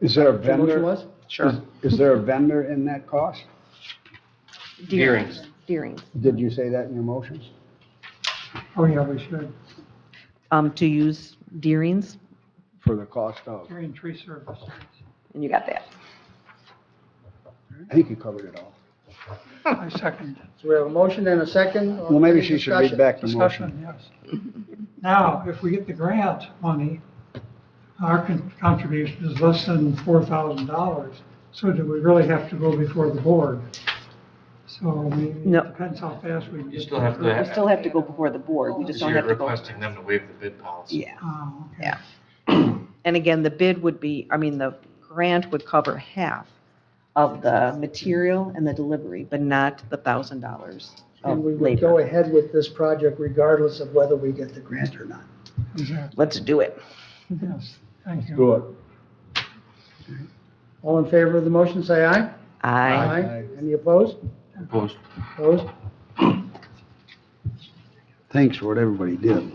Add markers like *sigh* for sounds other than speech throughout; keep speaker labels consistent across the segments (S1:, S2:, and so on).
S1: Is there a
S2: What the motion
S1: vendor?
S2: was?
S1: Is
S3: Sure.
S1: is there a vendor in that cost?
S3: Deering's.
S4: Deering's.
S1: Did you say that in your motions?
S5: Oh, yeah, we should.
S4: Um, to use Deering's,
S1: For the cost of?
S5: Green tree services.
S4: and you got that.
S1: I think you covered it all.
S5: I second.
S2: So we have a motion and a second.
S1: Well, maybe she should read
S2: Discussion.
S1: back the motion.
S5: Discussion, yes. Now, if we get the grant money, our con- contribution is less than four thousand dollars. So do we really have to go before the board? So I mean,
S4: No.
S5: it depends how fast we can get.
S3: You still have
S4: We
S3: to,
S4: still have to go before the board, we just
S3: because
S4: don't
S3: you're
S4: have to go.
S3: requesting them to waive the bid policy.
S4: Yeah,
S5: Oh, okay.
S4: Yeah. and again, the bid would be, I mean, the grant would cover half of the material and the delivery, but not the thousand dollars of
S2: And we would go
S4: labor.
S2: ahead with this project regardless of whether we get the grant or not.
S5: Exactly,
S4: Let's do it.
S5: yes, thank you.
S1: Good.
S2: All in favor of the motion, say aye.
S4: I,
S2: Any opposed?
S3: Opposed?
S2: Opposed?
S1: Thanks for what everybody did.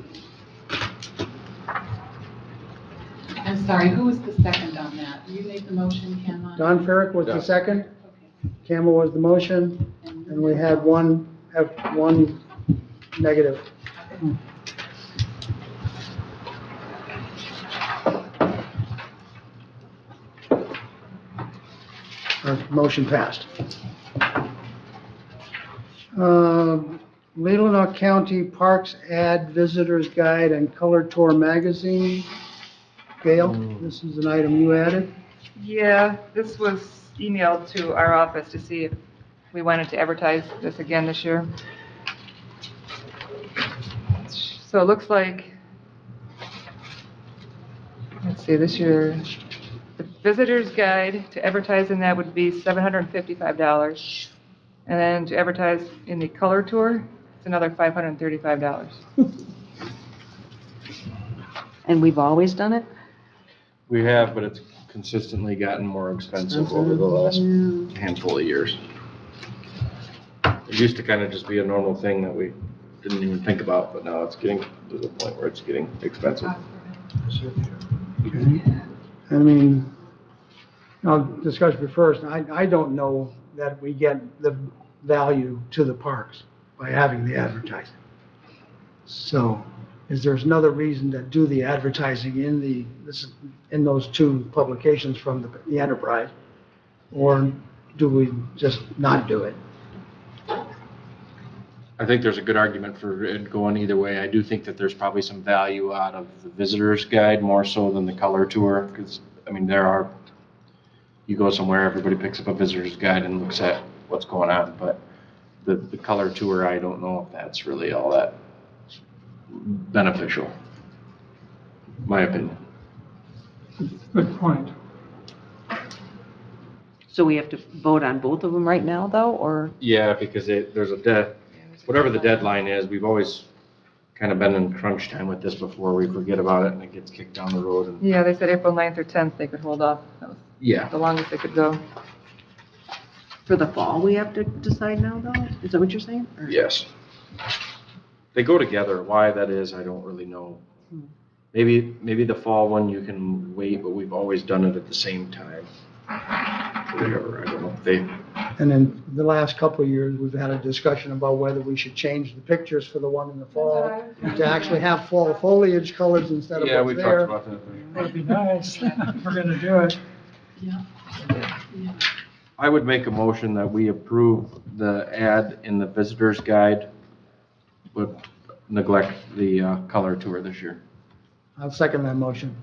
S6: I'm sorry, who was the second on that? You made the motion, Ken, on?
S2: Don Ferrick was the
S3: Yeah.
S2: second,
S6: Okay.
S2: Campbell was the motion, and we had one, have one negative. Our Uh, motion passed. Um, Leelanau County Parks Ad Visitor's Guide and Color Tour Magazine. Gail, this is an item you added.
S7: Yeah, this was emailed to our office to see if we wanted to advertise this again this year. So it looks like, let's see, this year, the visitor's guide to advertising that would be $755. And then to advertise in the color tour, it's another $535.
S4: and we've always done it?
S3: We have, but it's consistently gotten more expensive over the last handful of years. It used to kind of just be a normal thing that we didn't even think about, but now it's getting to the point where it's getting expensive.
S2: I mean, I'll discuss it first. I, I don't know that we get the value to the parks by having the advertising. So is there's another reason to do the advertising in the, this, is- in those two publications from the, the enterprise? Or do we just not do it?
S3: I think there's a good argument for it going either way. I do think that there's probably some value out of the visitor's guide more so than the color tour, because, I mean, there are, you go somewhere, everybody picks up a visitor's guide and looks at what's going on, but the, the color tour, I don't know if that's really all that beneficial. My opinion.
S5: Good point.
S4: So we have to vote on both of them right now, though, or?
S3: Yeah, because it, there's a dead, whatever the deadline is, we've always kind of been in crunch time with this before. We forget about it and it gets kicked down the road and,
S7: Yeah, they said April 9th or 10th they could hold off. That was
S3: yeah.
S7: the longest they could go.
S4: For the fall, we have to decide now, though? Is that what you're saying? Or-
S3: Yes. They go together. Why that is, I don't really know.
S4: Hmm.
S3: Maybe, maybe the fall one you can wait, but we've always done it at the same time. Whatever, I don't know. They,
S2: And then the last couple of years, we've had a discussion about whether we should change the pictures for the one in the fall to actually have fall foliage colors instead of
S3: yeah, we
S2: what's
S3: talked
S2: there.
S3: about that.
S5: That'd
S4: *laughs*
S5: be nice. if We're gonna do it.
S6: Yeah. Yeah.
S3: I would make a motion that we approve the ad in the visitor's guide, but neglect the uh, color tour this year.
S2: I'll second that motion.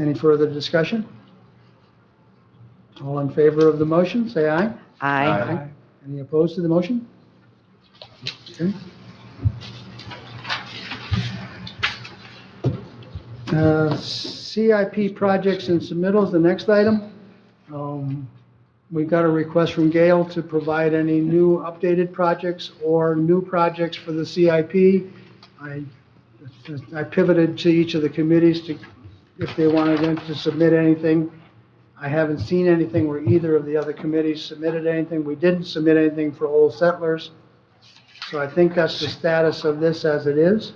S2: Any further discussion? All in favor of the motion, say aye.
S4: I.
S3: Aye.
S2: Any opposed to the motion? Okay. Uh, CIP projects and submittals, the next item. Um, We got a request from Gail to provide any new updated projects or new projects for the CIP. I I pivoted to each of the committees to, if they wanted them to submit anything. I haven't seen anything where either of the other committees submitted anything. We didn't submit anything for Old Settlers. So I think that's the status of this as it is.